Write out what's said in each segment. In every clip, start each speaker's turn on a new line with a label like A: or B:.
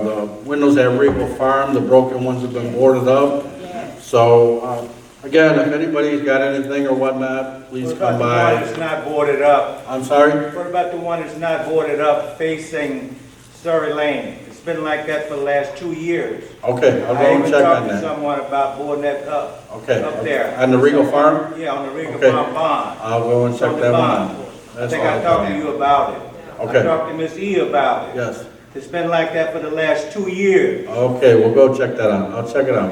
A: Uh, The windows at Regal Farm, the broken ones have been boarded up. So, uh, again, if anybody's got anything or whatnot, please
B: What about
A: come
B: the one
A: by.
B: that's not boarded up?
A: I'm sorry?
B: What about the one that's not boarded up facing Surrey Lane? It's been like that for the last two years.
A: Okay, I'll go
B: I
A: and
B: even
A: check on
B: talked to
A: that.
B: someone about boarding that up,
A: Okay. uh,
B: up there.
A: On the Regal Farm?
B: Yeah, on the Regal
A: Okay.
B: Farm Bond.
A: I'll go and check
B: On the
A: that one
B: bond.
A: out.
B: I
A: That's
B: think I
A: all.
B: talked to you about it. I
A: Okay.
B: talked to Miss E about it.
A: Yes.
B: It's been like that for the last two years.
A: Okay, we'll go check that out. I'll check it out.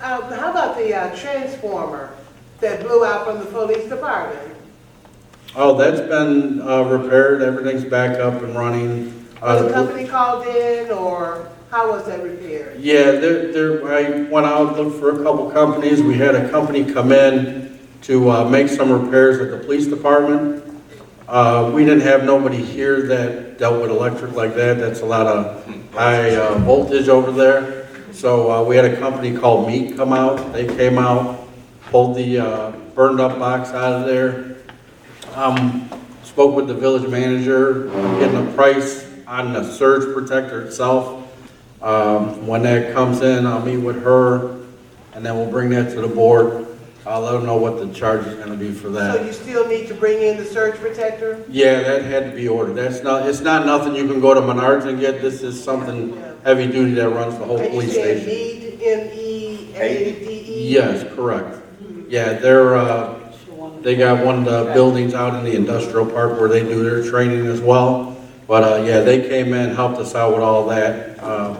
C: Uh, how about the uh, transformer that blew out from the police department?
A: Oh, that's been uh, repaired, everything's back up and running. Uh,
C: Was the company called in, or how was that repaired?
A: Yeah, there, there, I went out, looked for a couple companies, we had a company come in to, uh, make some repairs at the police department. Uh, we didn't have nobody here that dealt with electric like that, that's a lot of high uh, voltage over there. So, uh, we had a company called Meat come out, they came out, pulled the, uh, burned up box out of there. Um, spoke with the village manager, getting a price on the surge protector itself. Um, when that comes in, I'll meet with her, and then we'll bring that to the board. I'll let them know what the charge is gonna be for
C: So
A: that.
C: you still need to bring in the surge protector?
A: Yeah, that had to be ordered. That's not, it's not nothing you can go to Menards and get. This is something heavy duty that runs the whole
C: And you
A: police
C: said
A: station.
C: need, E M-E-A-D-E?
A: Yes, correct. Yeah, they're, uh, They got one of the buildings out in the industrial park where they do their training as well. But, uh, yeah, they came in, helped us out with all that, uh,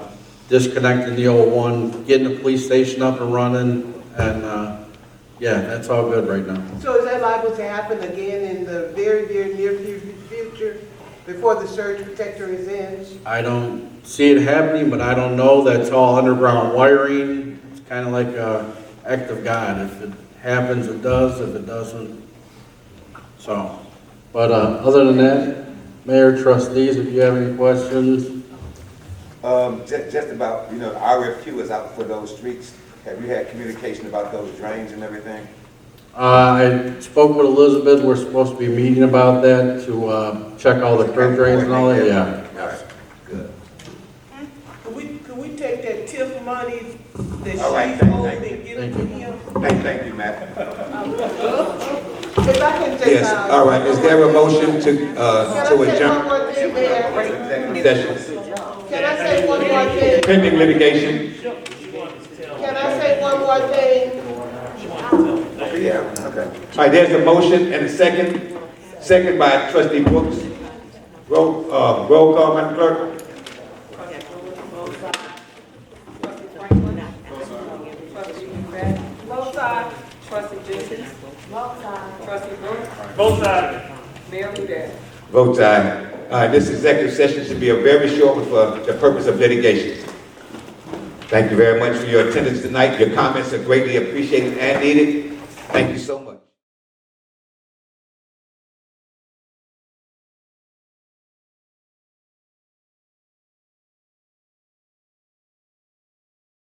A: disconnecting the old one, getting the police station up and running, and, uh, yeah, that's all good right now.
C: So is that liable to happen again in the very, very near fu- future, before the surge protector is in?
A: I don't see it happening, but I don't know, that's all underground wiring. It's kinda like a act of God, if it happens, it does, if it doesn't, so. But, uh, other than that, Mayor, trustees, if you have any questions,
D: Um, ju- just about, you know, the RFQ is out for those streets. Have you had communication about those drains and everything?
A: Uh, I spoke with Elizabeth, we're supposed to be meeting about that to, uh, check all the curb drains and all that, yeah.
D: All right, good.
C: Could we, could we take that TIF money that
D: All right,
C: she's
D: thank-
C: owed
D: thank
C: and give it to
A: Thank
C: him?
D: Thank, thank you, Matt.
C: If I can just.
E: Yes,
C: uh,
E: all right, is there a motion to,
C: Can
E: uh,
C: I
E: to
C: say one
E: adjourn
C: more thing, Mayor?
D: Executive
E: session?
C: Can I say one more thing?
E: Pending litigation,
C: Can I say one more thing?
D: session. Yeah, okay.
E: all right, there's a motion and a second, second by trustee Brooks. Roll, uh, roll call, Madam Clerk?
F: Trustee Brett. Both sides. Trustee Jenkins. Both sides. Trustee Brooks. Both sides. Mayor Huda.
E: Votes aye. All right, this executive session should be a very short one for the purpose of litigation. Thank you very much for your attendance tonight, your comments are greatly appreciated and needed. Thank you so much.